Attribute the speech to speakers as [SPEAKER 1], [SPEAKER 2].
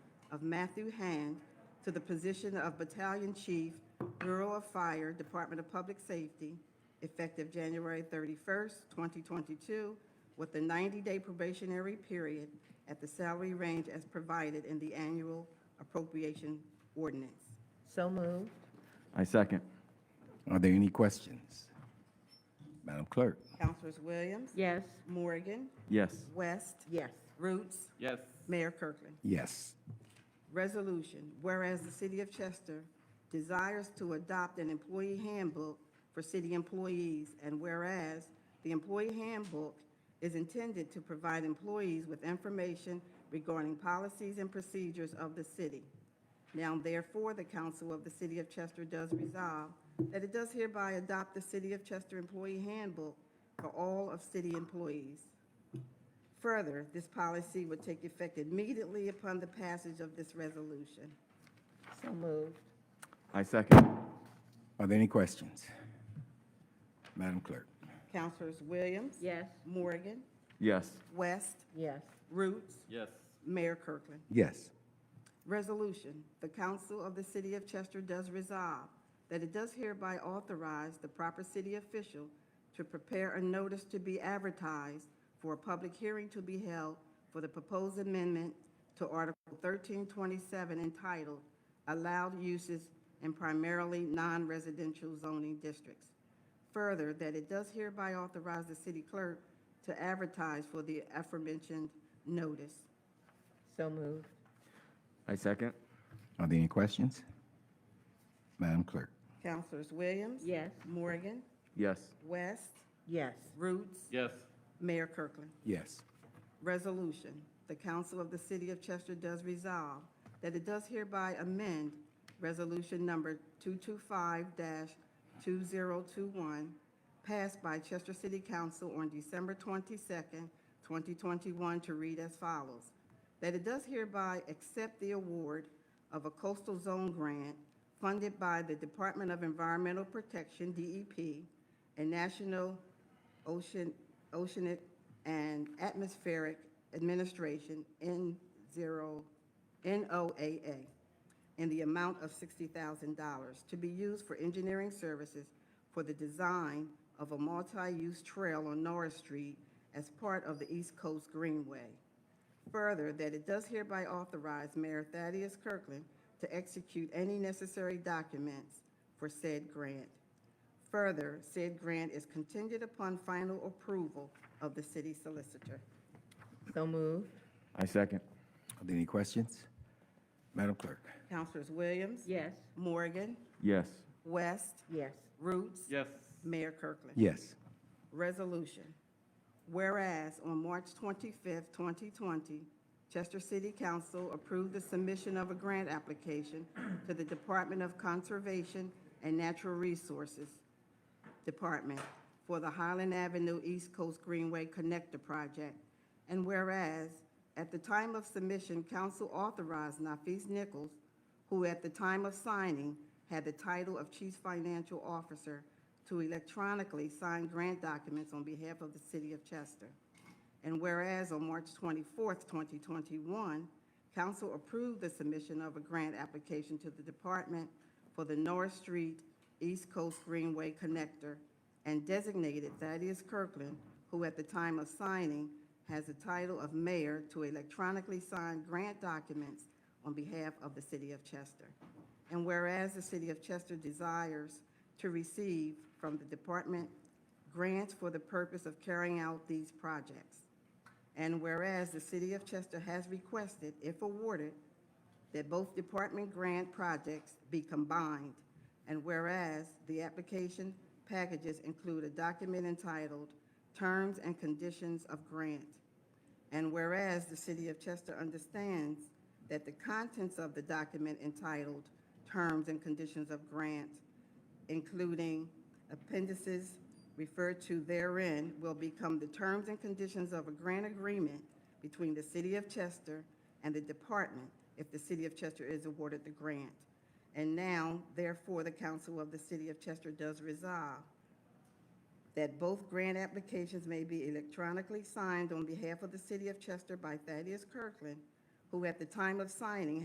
[SPEAKER 1] of Matthew Hand to the position of Battalion Chief, Bureau of Fire, Department of Public Safety, effective January 31st, 2022, with a 90-day probationary period at the salary range as provided in the annual appropriation ordinance.
[SPEAKER 2] So moved.
[SPEAKER 3] I second.
[SPEAKER 4] Are there any questions? Madam Clerk?
[SPEAKER 1] Councilors Williams?
[SPEAKER 2] Yes.
[SPEAKER 1] Morgan?
[SPEAKER 3] Yes.
[SPEAKER 1] West?
[SPEAKER 2] Yes.
[SPEAKER 1] Roots?
[SPEAKER 3] Yes.
[SPEAKER 1] Mayor Kirkland.
[SPEAKER 4] Yes.
[SPEAKER 1] Resolution, whereas the city of Chester desires to adopt an employee handbook for city employees, and whereas the employee handbook is intended to provide employees with information regarding policies and procedures of the city. Now therefore, the council of the city of Chester does resolve that it does hereby adopt the city of Chester employee handbook for all of city employees. Further, this policy would take effect immediately upon the passage of this resolution.
[SPEAKER 2] So moved.
[SPEAKER 3] I second.
[SPEAKER 4] Are there any questions? Madam Clerk?
[SPEAKER 1] Counselors Williams?
[SPEAKER 2] Yes.
[SPEAKER 1] Morgan?
[SPEAKER 3] Yes.
[SPEAKER 1] West?
[SPEAKER 2] Yes.
[SPEAKER 1] Roots?
[SPEAKER 3] Yes.
[SPEAKER 1] Mayor Kirkland.
[SPEAKER 4] Yes.
[SPEAKER 1] Resolution, the council of the city of Chester does resolve that it does hereby authorize the proper city official to prepare a notice to be advertised for a public hearing to be held for the proposed amendment to Article 1327 entitled Allowed Uses in Primarily Non-Residential Zoning Districts. Further, that it does hereby authorize the city clerk to advertise for the aforementioned notice.
[SPEAKER 2] So moved.
[SPEAKER 3] I second.
[SPEAKER 4] Are there any questions? Madam Clerk?
[SPEAKER 1] Counselors Williams?
[SPEAKER 2] Yes.
[SPEAKER 1] Morgan?
[SPEAKER 3] Yes.
[SPEAKER 1] West?
[SPEAKER 2] Yes.
[SPEAKER 1] Roots?
[SPEAKER 3] Yes.
[SPEAKER 1] Mayor Kirkland.
[SPEAKER 4] Yes.
[SPEAKER 1] Resolution, the council of the city of Chester does resolve that it does hereby amend Resolution Number 225-2021, passed by Chester City Council on December 22nd, 2021, to read as follows. That it does hereby accept the award of a coastal zone grant funded by the Department of Environmental Protection, DEP, and National Ocean, Oceanic and Atmospheric Administration, N zero, NOAA, in the amount of $60,000 to be used for engineering services for the design of a multi-use trail on Norris Street as part of the East Coast Greenway. Further, that it does hereby authorize Mayor Thaddeus Kirkland to execute any necessary documents for said grant. Further, said grant is contingent upon final approval of the city solicitor.
[SPEAKER 2] So moved.
[SPEAKER 3] I second.
[SPEAKER 4] Are there any questions? Madam Clerk?
[SPEAKER 1] Counselors Williams?
[SPEAKER 2] Yes.
[SPEAKER 1] Morgan?
[SPEAKER 3] Yes.
[SPEAKER 1] West?
[SPEAKER 2] Yes.
[SPEAKER 1] Roots?
[SPEAKER 3] Yes.
[SPEAKER 1] Mayor Kirkland.
[SPEAKER 4] Yes.
[SPEAKER 1] Resolution. Whereas on March 25th, 2020, Chester City Council approved the submission of a grant application to the Department of Conservation and Natural Resources Department for the Highland Avenue East Coast Greenway Connector Project. And whereas, at the time of submission, council authorized Nafis Nichols, who at the time of signing had the title of Chief Financial Officer, to electronically sign grant documents on behalf of the city of Chester. And whereas on March 24th, 2021, council approved the submission of a grant application to the department for the North Street East Coast Greenway Connector and designated Thaddeus Kirkland, who at the time of signing has the title of mayor, to electronically sign grant documents on behalf of the city of Chester. And whereas the city of Chester desires to receive from the department grants for the purpose of carrying out these projects. And whereas the city of Chester has requested, if awarded, that both department grant projects be combined. And whereas the application packages include a document entitled Terms and Conditions of Grant. And whereas the city of Chester understands that the contents of the document entitled Terms and Conditions of Grant, including appendices referred to therein, will become the terms and conditions of a grant agreement between the city of Chester and the department if the city of Chester is awarded the grant. And now, therefore, the council of the city of Chester does resolve that both grant applications may be electronically signed on behalf of the city of Chester by Thaddeus Kirkland, who at the time of signing